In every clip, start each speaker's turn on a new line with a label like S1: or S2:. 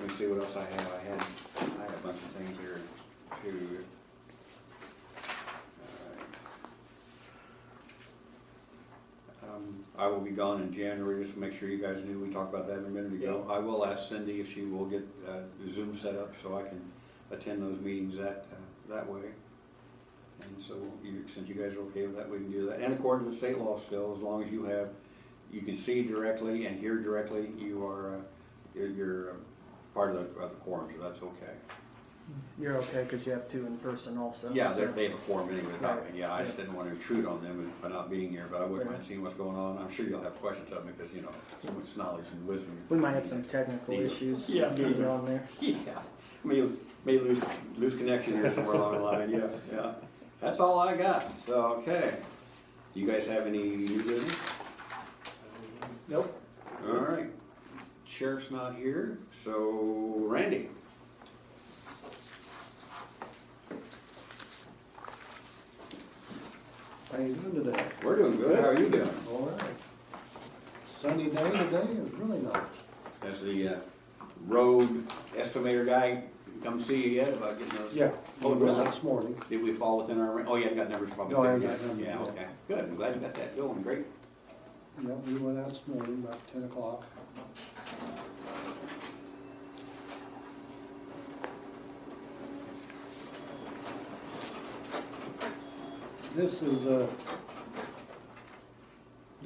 S1: Let me see what else I have. I had, I had a bunch of things here too. Alright. Um, I will be gone in January, just to make sure you guys knew, we talked about that a minute ago. I will ask Cindy if she will get uh, Zoom set up so I can attend those meetings that, uh, that way. And so you, since you guys are okay with that, we can do that. And according to state law still, as long as you have, you can see directly and hear directly, you are, uh, you're, you're uh, part of the, of the quorum, so that's okay.
S2: You're okay because you have two in person also.
S1: Yeah,
S2: so-
S1: they're, they have a quorum anyway without me, yeah, I just
S2: Right.
S1: didn't wanna intrude on them by not being here, but I wouldn't mind
S2: Right.
S1: seeing what's going on. I'm sure you'll have questions of me, because, you know, so much knowledge and wisdom.
S2: We might have some technical
S1: Neither.
S2: issues
S1: Yeah.
S2: getting on there.
S1: Yeah, may, may lose, lose connection here somewhere along the line, yeah, yeah. That's all I got, so, okay. Do you guys have any new business? Nope. All right, sheriff's not here, so Randy?
S3: How you doing today?
S1: We're doing good, how are you doing?
S3: All right. Sunny day today, it's really nice.
S1: Has the uh, road estimator guy come see you yet about getting those?
S3: Yeah.
S1: Oh, really?
S3: This morning.
S1: Did we fall within our, ra- oh, you haven't got numbers probably?
S3: No, I
S1: there
S3: haven't
S1: yet.
S3: got numbers
S1: Yeah,
S3: yet.
S1: okay, good, I'm glad you got that going, great.
S3: Yeah, we went out this morning about ten o'clock. This is a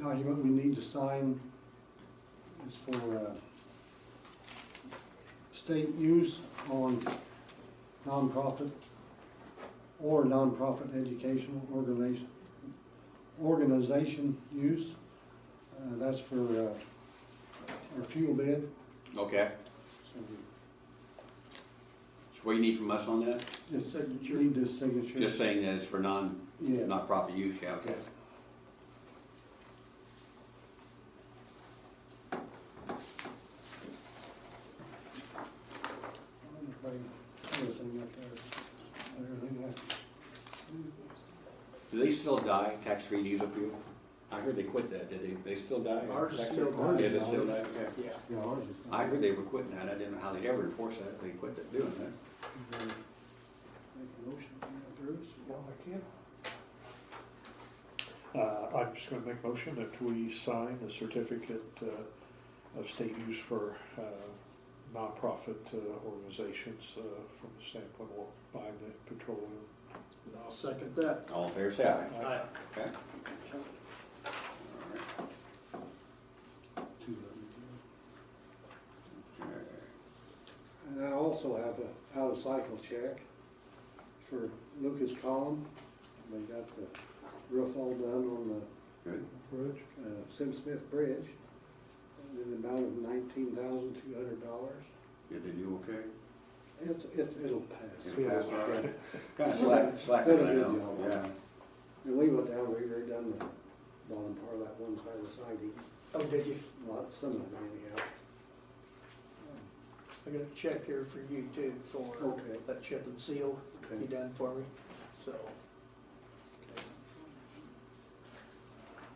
S3: document we need to sign. It's for, uh, state use on nonprofit or nonprofit educational organization, organization use. Uh, that's for, uh, our fuel bid,
S1: Okay,
S3: so
S1: so what you need from us on that?
S3: we just need the signature.
S1: Just saying that it's for non,
S3: Yeah.
S1: nonprofit use, yeah, okay.
S3: I'm gonna bring Everything up there, everything I.
S1: Do they still die, tax-free diesel fuel? I heard they quit that, did they, they still die?
S4: Ours is
S1: Tax-
S4: still dying.
S1: Yeah, they still die, okay.
S4: Yeah,
S3: Yeah, ours is.
S1: I heard they were quitting that, I didn't know how they ever enforced that, they quit that- doing that.
S3: Make a motion, yeah, Bruce.
S4: well, I can. Uh, I'm just gonna make a motion that we sign the certificate, uh, of state use for, uh, nonprofit uh, organizations, uh, from the standpoint of buying the petroleum.
S5: And I'll second that.
S1: All in favor, say aye.
S5: Aye.
S1: Okay.
S3: Two of them.
S1: Okay.
S3: And I also have a out of cycle check for Lucas Collin. They got the roof all done on
S1: Good.
S4: Bridge?
S3: the uh, Sim Smith Bridge in the amount of nineteen thousand two hundred dollars.
S1: Did they do okay?
S3: It's, it's, it'll pass.
S1: It'll pass, all right. Kinda
S3: Yeah.
S1: slack, slack, I
S3: Did a good
S1: know,
S3: job.
S1: yeah.
S3: And we went down, we redone the bottom part of that one side of the siding,
S5: Oh, did you?
S3: lot, some of it anyhow.
S5: I got a check here for you too for
S3: Okay.
S5: that chip and seal
S3: Okay.
S5: you done for me, so.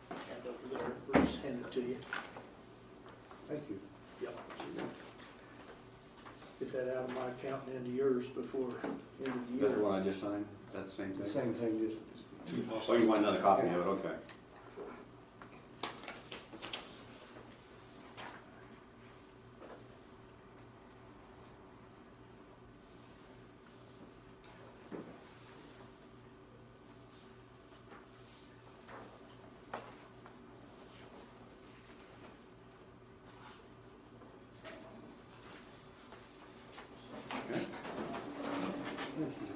S5: Hand over there, Bruce, hand it to you.
S3: Thank you.
S5: Yep. Get that out of my account and into yours before end of the
S1: That's the
S5: year.
S1: one I just signed, that same
S3: The
S1: thing?
S3: same thing, just,
S1: Oh, you want another copy of it, okay. Okay,
S3: thank you.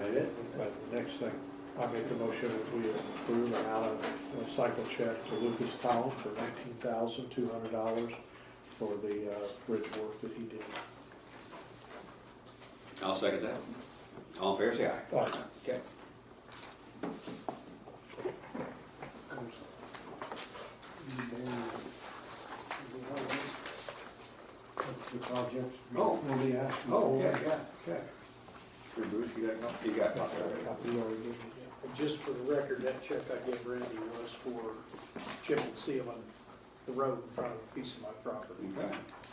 S1: that it?
S4: But the next thing, I make the motion that we approve an out of cycle check to Lucas Town for nineteen thousand two hundred dollars for the, uh, bridge work that he did.
S1: I'll second that. All in favor, say aye.
S4: Aye.
S1: Okay.
S3: That's the project.
S1: Oh.
S3: We'll be asking.
S1: Oh, yeah,
S3: for.
S1: yeah, okay. Sure, Bruce, you got a copy? You got a copy already.
S4: Copy already given.
S5: And Just for the record, that check I gave Randy was for chip and sealing the road in front of a piece of my property.
S1: Okay.